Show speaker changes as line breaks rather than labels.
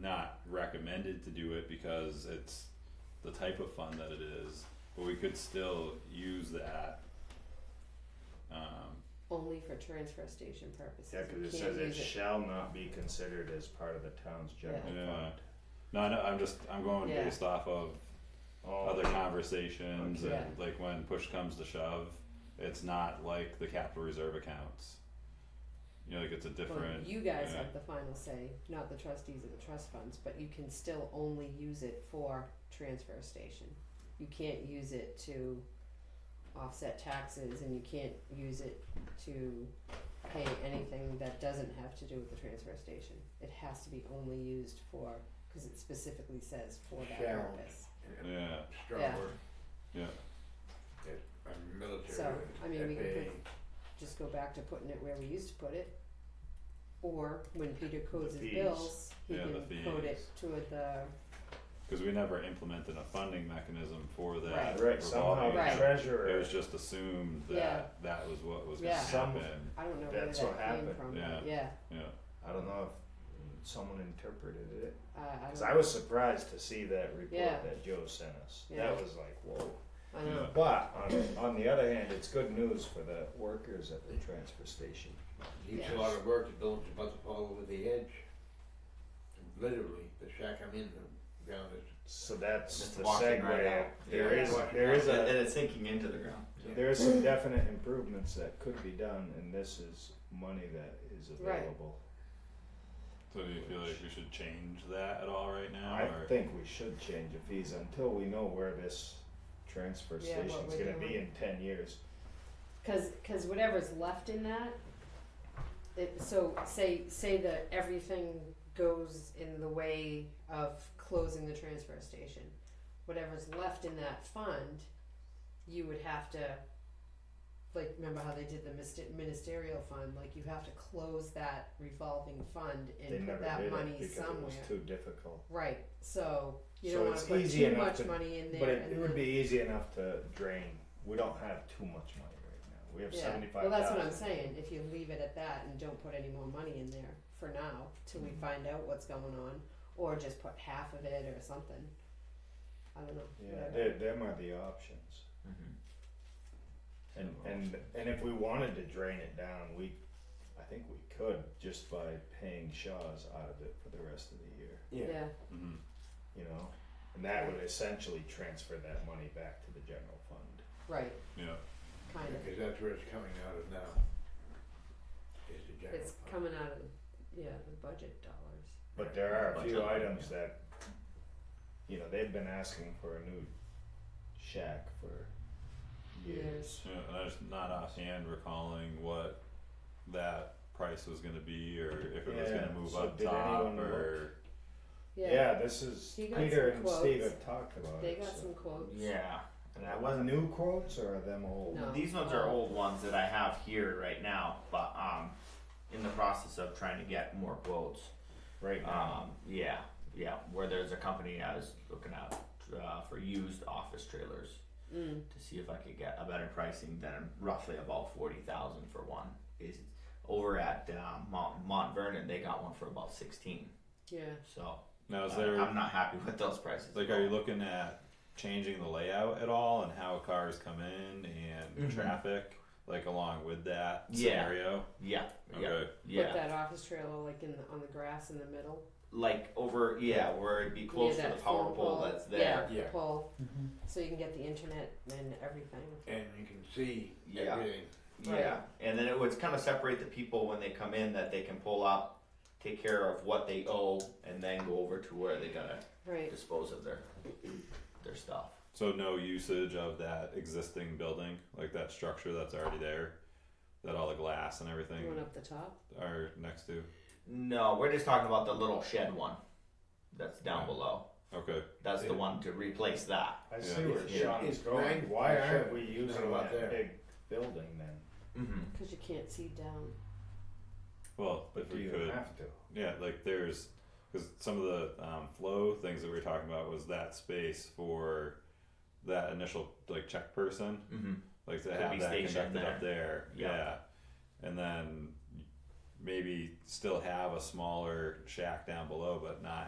not recommended to do it because it's the type of fund that it is, but we could still use that. Um,
only for transfer station purposes.
Yeah, cause
We
it
can't
says it
use
shall not be considered as part of the town's general fund.
Yeah. no, I know, I'm just, I'm going
Yeah.
based off of
Oh,
other conversations
Okay.
and like when push comes to shove, it's not like the capital reserve accounts. You know, like it's a
Well,
different,
you guys
yeah.
have the final say, not the trustees of the trust funds, but you can still only use it for transfer station. You can't use it to offset taxes and you can't use it to pay anything that doesn't have to do with the transfer station. It has to be only used for, cause it specifically says for that
Shall.
purpose.
yeah,
Strong
Yeah.
word.
Yeah.
It, our military.
So, I mean, we can
FAA.
Just go back to putting it where we used to put it. Or when Peter codes
The
his
fees.
bills, he
Yeah,
can
the
code it to the
cause we never implemented a funding mechanism for that revolving.
Right, somehow
Right.
the
It
treasurer,
was just assumed
Yeah.
that that was what was gonna
Yeah.
Some-
happen,
I don't know
That's
where
what
that came
happened,
from.
yeah.
But yeah.
yeah,
I don't know if someone interpreted it,
Uh, I,
cause
don't,
I was surprised to see that
Yeah.
report that Joe sent us,
Yeah.
that was like, whoa.
I
Mm.
know.
But on, on the other hand, it's good news for the workers at the transfer station.
Leaves
Yeah.
a lot of work to build a bunch of all over the edge. Literally, the shack I'm in, the ground is
So that's
Just
the
walking
segue,
right out.
there
Yeah.
is, there is
and, and
a,
it's sinking into the ground.
Yeah.
there is some definite improvements that could be done, and this is money that is
Right.
available.
so do you feel like we should change that at all right now,
I
or?
think we should change the fees until we know where this transfer
Yeah, what
station's
we're
gonna be in
doing.
ten years.
Cause, cause whatever's left in that, it, so say, say that everything goes in the way of closing the transfer station. Whatever's left in that fund, you would have to, like, remember how they did the mister- ministerial fund, like you have to close that revolving fund
They
and
never
put
did
that
it
money
because it
somewhere.
was too difficult.
Right, so you
So
don't wanna
it's
put
easy
too
enough
much
to-
money in there
But it,
and
it would
then-
be easy enough to drain, we don't have too much money right now, we have
Yeah,
seventy-five
well,
thousand.
that's what I'm saying, if you leave it at that and don't put any more money in there for now, till we
Mhm.
find out what's going on, or just put half of it or something. I don't know,
Yeah,
whatever.
they, them are the options.
Mm-hmm.
And, and, and if we wanted to drain it down, we, I think we could just by paying Shaw's out of it for the rest of the year,
yeah.
Yeah,
Mhm.
you know? And that would essentially transfer that money back to the general fund.
right,
yeah,
kind of,
because that's where it's coming out of now. Is the general
it's
fund.
coming out of, yeah, the budget dollars.
But there are a
Bunch
few
of them,
items that, you know, they've been asking for a new shack for years.
yeah, and I'm just not offhand recalling what that price was gonna be, or if it was
Yeah,
gonna move
so
up
did
top,
anyone look?
or,
Yeah,
Yeah, this is,
He got
Peter
some
and Steve
quotes.
have talked about
they
it,
got some
so.
quotes,
Yeah, and I
Are
wasn't.
new quotes or are them old?
No.
These ones are old ones that I have here right now, but um, in the process of trying to get more quotes.
Right
Ah,
now.
Um, yeah, yeah, where there's a company I was looking at uh, for used office trailers
mm,
to see if I could get a better pricing than roughly about forty thousand for one. Is over at uh, Mount, Mount Vernon, they got one for about sixteen.
yeah,
So
now is
uh,
there,
I'm not happy with those prices.
like, are you looking at changing the layout at all, and how cars come in, and
Mm-hmm.
Mhm.
traffic, like along with that
Yeah.
scenario?
Yeah, yeah,
Okay.
put
yeah.
that office trailer like in the, on the grass in the middle,
Like over, yeah, where it'd be
near
close to
that
the power
phone pole,
pole that's
yeah,
there.
the
Yeah.
pole, so you can get the internet and everything.
And you can see
Yeah.
everything.
Yeah, and then it would kind of separate the people when they come in that they can pull up, take care of what they owe, and then go over to where they gotta
Right,
dispose of their their stuff.
So no usage of that existing building, like that structure that's already there, that all the glass and everything
going up the top,
are next to.
No, we're just talking about the little shed one that's down
Right.
below.
Okay,
That's the one to replace that.
I
Yeah.
see where
Yeah.
Sean is
It's
going.
right-
Why
it's
aren't
right-
we
it's
using
right about
that
there.
big building then?
Mm-hmm.
cause you can't see down.
well, if
Do
we
you
could,
have to?
yeah, like there's, because some of the um, flow things that we were talking about was that space for that initial like check person,
Mm-hmm.
like to
Could
have
be
that
stationed
conducted up there,
Yeah.
yeah, and then maybe still have a smaller shack down below, but not